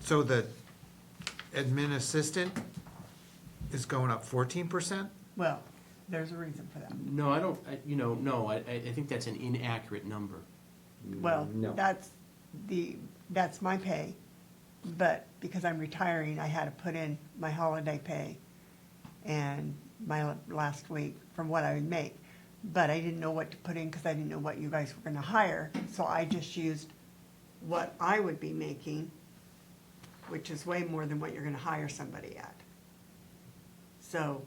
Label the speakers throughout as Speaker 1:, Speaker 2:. Speaker 1: So the admin assistant is going up fourteen percent?
Speaker 2: Well, there's a reason for that.
Speaker 3: No, I don't, I- you know, no, I, I I think that's an inaccurate number. Mm,
Speaker 2: Well,
Speaker 4: No.
Speaker 2: that's the, that's my pay, but because I'm retiring, I had to put in my holiday pay and my last week from what I would make. But I didn't know what to put in because I didn't know what you guys were gonna hire, so I just used what I would be making, which is way more than what you're gonna hire somebody at. So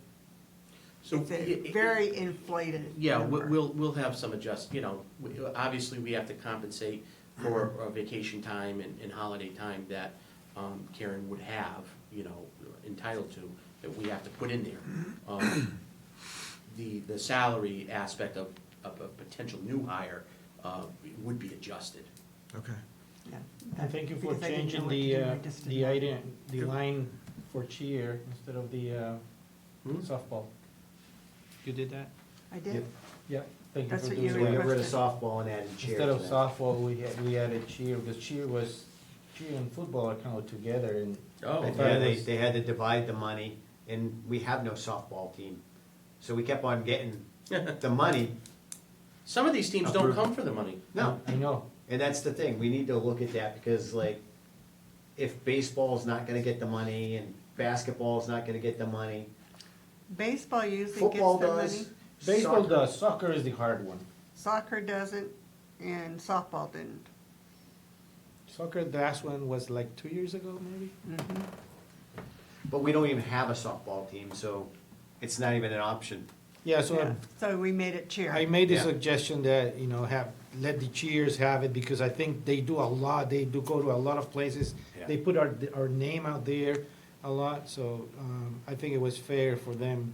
Speaker 3: So
Speaker 2: it's
Speaker 3: y-
Speaker 2: a
Speaker 3: y-
Speaker 2: very inflated
Speaker 3: Yeah, we-
Speaker 2: number.
Speaker 3: we'll, we'll have some adjust, you know, we- obviously, we have to compensate for
Speaker 2: Uh-huh.
Speaker 3: uh, vacation time and, and holiday time that um, Karen would have, you know, entitled to, that we have to put in there.
Speaker 2: Mm-hmm.
Speaker 3: Um, The, the salary aspect of, of a potential new hire uh, would be adjusted.
Speaker 1: Okay.
Speaker 2: Yeah,
Speaker 4: And thank you for
Speaker 2: because I didn't know
Speaker 4: changing
Speaker 2: what to
Speaker 4: the,
Speaker 2: do,
Speaker 4: uh,
Speaker 2: I just didn't
Speaker 4: the
Speaker 2: know.
Speaker 4: item, the line for cheer instead of the uh,
Speaker 3: Hmm?
Speaker 4: softball. You did that?
Speaker 2: I did.
Speaker 4: Yeah, thank you
Speaker 2: That's
Speaker 4: for
Speaker 2: what
Speaker 4: doing
Speaker 2: you
Speaker 4: that.
Speaker 5: So we got rid of
Speaker 2: requested.
Speaker 5: softball and added cheer
Speaker 4: Instead
Speaker 5: to
Speaker 4: of
Speaker 5: that.
Speaker 4: softball, we had, we added cheer, because cheer was, cheer and football are kind of together and.
Speaker 3: Oh,
Speaker 4: I
Speaker 3: okay.
Speaker 4: thought
Speaker 5: Yeah,
Speaker 4: it
Speaker 5: they,
Speaker 4: was-
Speaker 5: they had to divide the money, and we have no softball team. So we kept on getting the money.
Speaker 3: Some of these teams don't
Speaker 5: Approved.
Speaker 3: come for the money.
Speaker 5: No,
Speaker 4: I know,
Speaker 5: and that's the thing, we need to look at that, because like, if baseball's not gonna get the money, and basketball's not gonna get the money,
Speaker 2: Baseball usually gets
Speaker 5: football
Speaker 2: their money,
Speaker 5: does.
Speaker 4: baseball
Speaker 5: soccer-
Speaker 4: does, soccer is the hard one.
Speaker 2: soccer doesn't, and softball didn't.
Speaker 4: Soccer, the last one was like two years ago, maybe?
Speaker 5: But we don't even have a softball team, so it's not even an option.
Speaker 4: Yeah, so
Speaker 2: Yeah,
Speaker 4: I'm-
Speaker 2: So we made it cheer.
Speaker 4: I made the
Speaker 5: Yeah.
Speaker 4: suggestion that, you know, have, let the cheers have it, because I think they do a lot, they do go to a lot of places.
Speaker 5: Yeah.
Speaker 4: They put our, our name out there a lot, so, um, I think it was fair for them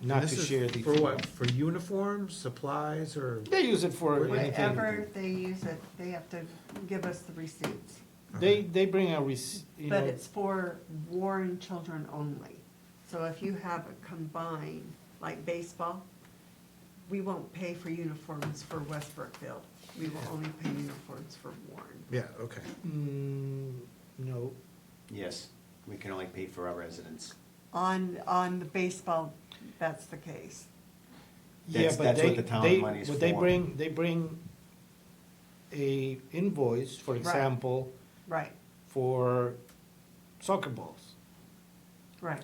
Speaker 4: not
Speaker 1: And
Speaker 4: to
Speaker 1: this is
Speaker 4: share the.
Speaker 1: For what, for uniforms, supplies, or,
Speaker 4: They use it for anything.
Speaker 2: Whenever they use it, they have to give us the receipts,
Speaker 4: They, they bring a receipt, you
Speaker 2: but
Speaker 4: know,
Speaker 2: it's for Warren children only. So if you have a combined, like baseball, we won't pay for uniforms for West Brookfield. We will only pay uniforms for Warren.
Speaker 1: yeah, okay.
Speaker 4: mm, no,
Speaker 5: Yes, we can only pay for our residents.
Speaker 2: On, on the baseball, that's the case.
Speaker 4: Yeah,
Speaker 5: That's-
Speaker 4: but
Speaker 5: that's what
Speaker 4: they,
Speaker 5: the town
Speaker 4: they,
Speaker 5: money is
Speaker 4: but they
Speaker 5: for.
Speaker 4: bring, they bring a invoice, for
Speaker 2: Right.
Speaker 4: example,
Speaker 2: Right,
Speaker 4: for soccer balls.
Speaker 2: right.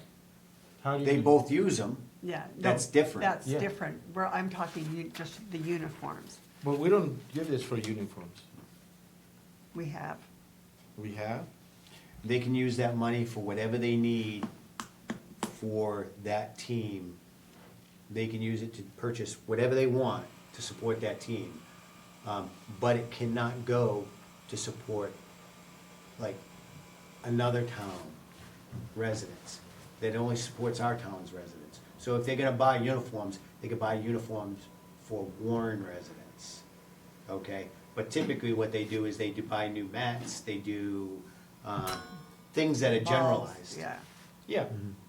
Speaker 4: How do
Speaker 5: They both use them,
Speaker 2: Yeah. no,
Speaker 5: That's different.
Speaker 2: That's
Speaker 4: Yeah.
Speaker 2: different. Where I'm talking u- just the uniforms
Speaker 4: But we don't give this for uniforms.
Speaker 2: we have.
Speaker 4: We have?
Speaker 5: they can use that money for whatever they need for that team. They can use it to purchase whatever they want to support that team. Um, but it cannot go to support like another town residents. That only supports our town's residents. So if they're gonna buy uniforms, they could buy uniforms for Warren residents. Okay, but typically what they do is they do buy new mats, they do, um, things that are
Speaker 2: balls,
Speaker 5: generalized.
Speaker 2: Yeah,
Speaker 4: Yeah.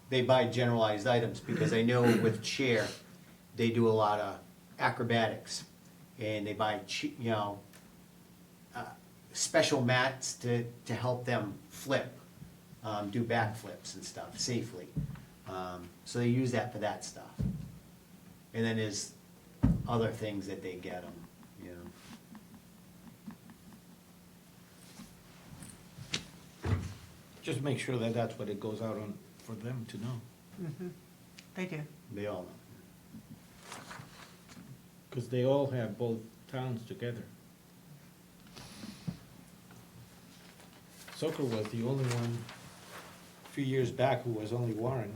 Speaker 5: They buy generalized items because I know with chair, they do a lot of acrobatics and they buy, che- you know, uh, special mats to, to help them flip, um, do backflips and stuff safely. Um, so they use that for that stuff. And then there's other things that they get them, you know.
Speaker 4: Just make sure that that's what it goes out on, for them to know.
Speaker 2: they do.
Speaker 5: They all know.
Speaker 4: Because they all have both towns together. Soccer was the only one a few years back who was only Warren.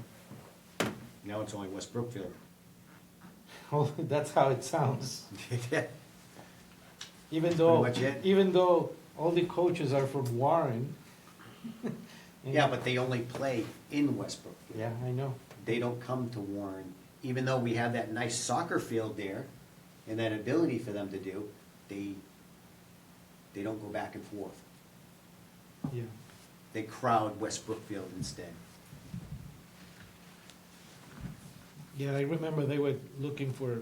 Speaker 5: Now it's only West Brookfield.
Speaker 4: Oh, that's how it sounds. Even though,
Speaker 5: Pretty much it.
Speaker 4: even though all the coaches are from Warren.
Speaker 5: yeah, but they only play in West Brookfield.
Speaker 4: Yeah, I know.
Speaker 5: They don't come to Warren, even though we have that nice soccer field there and that ability for them to do, they, they don't go back and forth.
Speaker 4: Yeah.
Speaker 5: They crowd West Brookfield instead.
Speaker 4: Yeah, I remember they were looking for